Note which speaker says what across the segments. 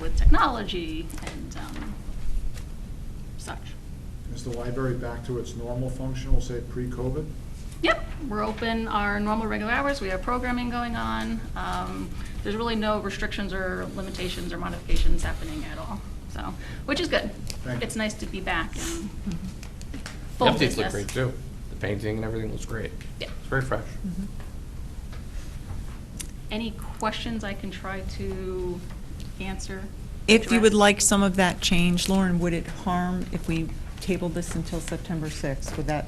Speaker 1: with technology and um, such.
Speaker 2: Is the library back to its normal function, we'll say pre-COVID?
Speaker 1: Yep, we're open our normal regular hours, we have programming going on. Um, There's really no restrictions or limitations or modifications happening at all, so, which is good.
Speaker 2: Thank you.
Speaker 1: It's nice to be back and
Speaker 3: Mm-hmm.
Speaker 4: The
Speaker 1: full
Speaker 4: updates
Speaker 1: business.
Speaker 4: look great too. The painting and everything looks great.
Speaker 1: Yeah.
Speaker 4: It's very fresh.
Speaker 1: Any questions I can try to answer?
Speaker 3: If you would
Speaker 1: directly?
Speaker 3: like some of that change, Lauren, would it harm if we tabled this until September 6th? Would that,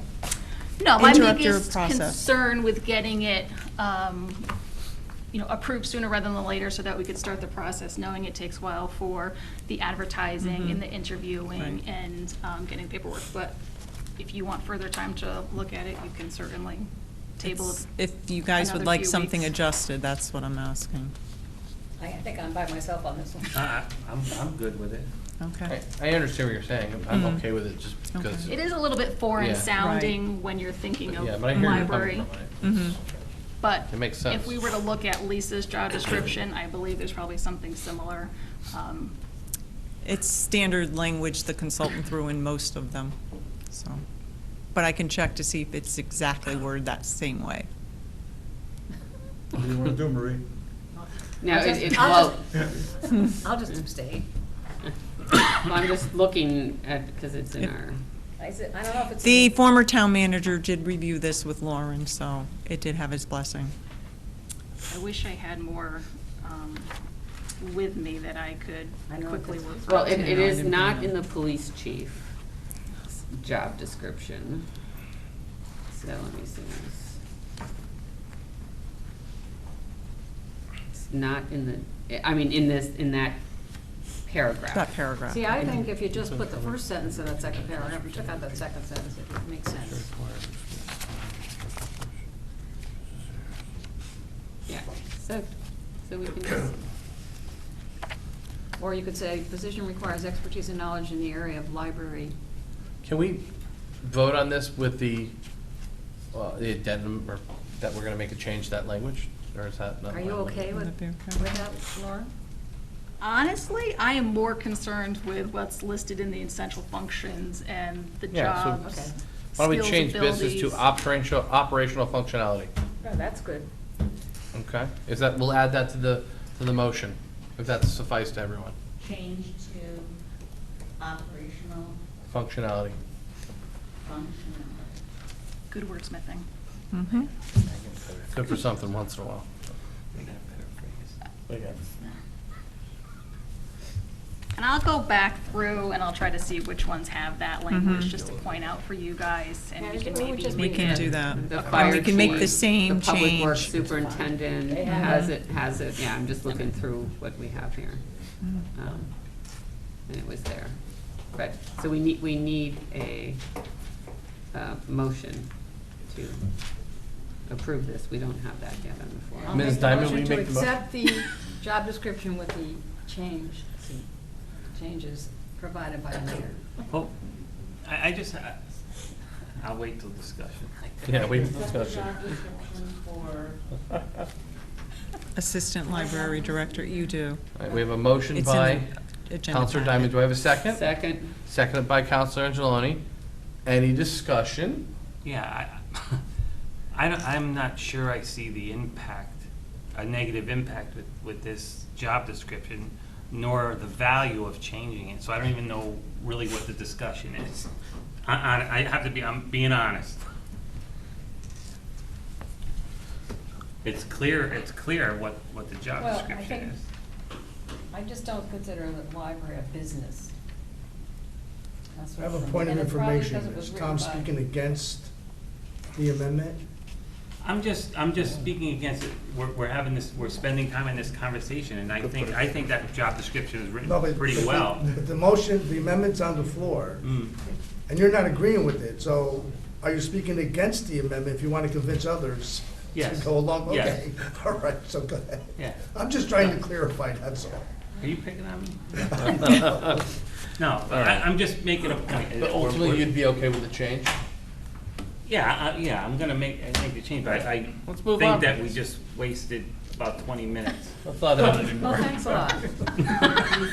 Speaker 1: No, my
Speaker 3: interrupt your
Speaker 1: biggest
Speaker 3: process.
Speaker 1: concern with getting it, um, you know, approved sooner rather than later so that we could start the process, knowing it takes a while for the advertising and the interviewing
Speaker 3: Mm-hmm. Right.
Speaker 1: and um, getting paperwork. But if you want further time to look at it, you can certainly table it.
Speaker 3: if you guys
Speaker 1: another
Speaker 3: would like
Speaker 1: few
Speaker 3: something
Speaker 1: weeks.
Speaker 3: adjusted, that's what I'm asking.
Speaker 5: I think I'm by myself on this one.
Speaker 6: Uh-uh.
Speaker 7: I- I'm, I'm good with it.
Speaker 3: Okay.
Speaker 4: I, I understand what you're saying. I'm
Speaker 3: Mhm.
Speaker 4: okay with it just because.
Speaker 3: Okay.
Speaker 1: Mm-hmm. It is a little bit foreign
Speaker 4: Yeah.
Speaker 1: sounding when you're thinking
Speaker 4: Yeah,
Speaker 1: of
Speaker 4: but I hear you're
Speaker 1: library. Mm-hmm.
Speaker 4: coming from.
Speaker 3: Mhm.
Speaker 1: But
Speaker 4: It makes
Speaker 1: if
Speaker 4: sense.
Speaker 1: we were to look at Lisa's job description, I believe there's probably something similar. um,
Speaker 3: It's standard language the consultant threw in most of them, so. But I can check to see if it's exactly worded that same way.
Speaker 2: What do you want to do, Marie?
Speaker 8: No,
Speaker 5: I'll
Speaker 8: it,
Speaker 5: just-
Speaker 8: it,
Speaker 5: I'll
Speaker 8: well,
Speaker 5: just- I'll just abstain.
Speaker 8: I'm just looking at, because it's in our,
Speaker 5: I said, I don't know if it's.
Speaker 3: The former town manager did review this with Lauren, so it did have his blessing.
Speaker 1: I wish I had more um, with me that I could
Speaker 5: I know,
Speaker 1: quickly
Speaker 5: it's-
Speaker 1: work.
Speaker 8: well,
Speaker 1: through.
Speaker 8: it, it is not in the police chief job description. So let me see this. It's not in the, I mean, in this, in that paragraph.
Speaker 3: That paragraph.
Speaker 5: See, I think if you just put the first sentence in that second paragraph, you took out that second sentence, it makes sense.
Speaker 8: Yeah, so, so we can just,
Speaker 5: Or you could say, position requires expertise and knowledge in the area of library.
Speaker 4: Can we vote on this with the, well, the addendum or that we're gonna make a change to that language? Or is that not?
Speaker 5: Are you
Speaker 4: my-
Speaker 5: okay with,
Speaker 3: Would that be okay?
Speaker 5: with that, Laura?
Speaker 1: Honestly, I am more concerned with what's listed in the essential functions and the
Speaker 4: Yeah, so-
Speaker 1: jobs.
Speaker 5: Okay.
Speaker 4: Why don't we
Speaker 1: skills,
Speaker 4: change business to
Speaker 1: abilities.
Speaker 4: operational, operational functionality?
Speaker 5: Yeah, Oh, that's good.
Speaker 4: Okay, is that, we'll add that to the, to the motion, if that suffices to everyone.
Speaker 9: change to operational
Speaker 4: Functionality.
Speaker 9: functionality.
Speaker 1: Good wordsmithing.
Speaker 3: Mhm.
Speaker 4: Good for something once in a while.
Speaker 1: And I'll go back through and I'll try to see which ones have that
Speaker 4: Mm-hmm.
Speaker 1: language, just to point out for you guys, and
Speaker 5: Yeah,
Speaker 1: we can
Speaker 5: we would
Speaker 1: maybe.
Speaker 5: just
Speaker 3: We
Speaker 1: make
Speaker 3: can
Speaker 1: it-
Speaker 3: do that.
Speaker 8: the
Speaker 1: Okay.
Speaker 8: fire
Speaker 3: We can make the
Speaker 8: chief,
Speaker 3: same
Speaker 8: The public works
Speaker 3: change.
Speaker 8: superintendent
Speaker 5: They have
Speaker 8: has it, has it, yeah, I'm just looking through what we have here.
Speaker 3: Mm-hmm.
Speaker 8: Um, And it was there. But, so we need, we need a, uh motion to approve this. We don't have that yet on the
Speaker 5: I'll
Speaker 8: floor.
Speaker 4: Ms.
Speaker 5: make the
Speaker 4: Diamond,
Speaker 5: motion
Speaker 4: will you
Speaker 5: to
Speaker 4: make the motion?
Speaker 5: Accept the job description with the change, changes provided by the mayor.
Speaker 7: Well, I, I just, I- I'll wait till discussion.
Speaker 4: Yeah, we
Speaker 9: Separate
Speaker 4: discussed it.
Speaker 9: job description for
Speaker 3: Assistant library director, you do.
Speaker 4: All right, we have a motion
Speaker 3: It's
Speaker 4: by
Speaker 3: in the agenda
Speaker 4: Counselor
Speaker 3: packet.
Speaker 4: Diamond, do I have a second?
Speaker 8: Second,
Speaker 4: Seconded by Counselor Angeloni. Any discussion?
Speaker 7: Yeah, I, I don't- I'm not sure I see the impact, a negative impact with, with this job description, nor the value of changing it, so I don't even know really what the discussion is. I, I, I have to be, I'm being honest. It's clear, it's clear what, what the job
Speaker 5: Well, I
Speaker 7: description
Speaker 5: think-
Speaker 7: is.
Speaker 5: I just don't consider the library a business. That's
Speaker 6: I
Speaker 5: what
Speaker 6: have a
Speaker 5: I'm-
Speaker 6: point of
Speaker 5: and it's probably
Speaker 6: information.
Speaker 5: because it was
Speaker 6: Is
Speaker 5: written
Speaker 6: Tom
Speaker 5: by-
Speaker 6: speaking against the amendment?
Speaker 7: I'm just, I'm just speaking against it. We're, we're having this, we're spending time in this conversation, and I think, I think that job description is
Speaker 6: No,
Speaker 7: written
Speaker 6: but- but
Speaker 7: pretty
Speaker 6: the-
Speaker 7: well.
Speaker 6: The the motion, the amendment's on the floor,
Speaker 7: Mm.
Speaker 6: and you're not agreeing with it, so are you speaking against the amendment if you want to convince others to
Speaker 7: Yes.
Speaker 6: go along?
Speaker 7: Yes.
Speaker 6: Okay, all right, so go ahead.
Speaker 7: Yeah.
Speaker 6: I'm just trying to clarify, that's all.
Speaker 7: Are you picking on me? No, I,
Speaker 4: right.
Speaker 7: I'm just making a point.
Speaker 4: But ultimately, you'd be okay with the change?
Speaker 7: Yeah, I, yeah, I'm gonna make, I make the change, but I
Speaker 4: Let's move
Speaker 7: think
Speaker 4: on.
Speaker 7: that we just wasted about twenty minutes.
Speaker 4: I thought that would be more.
Speaker 5: Well, thanks a lot.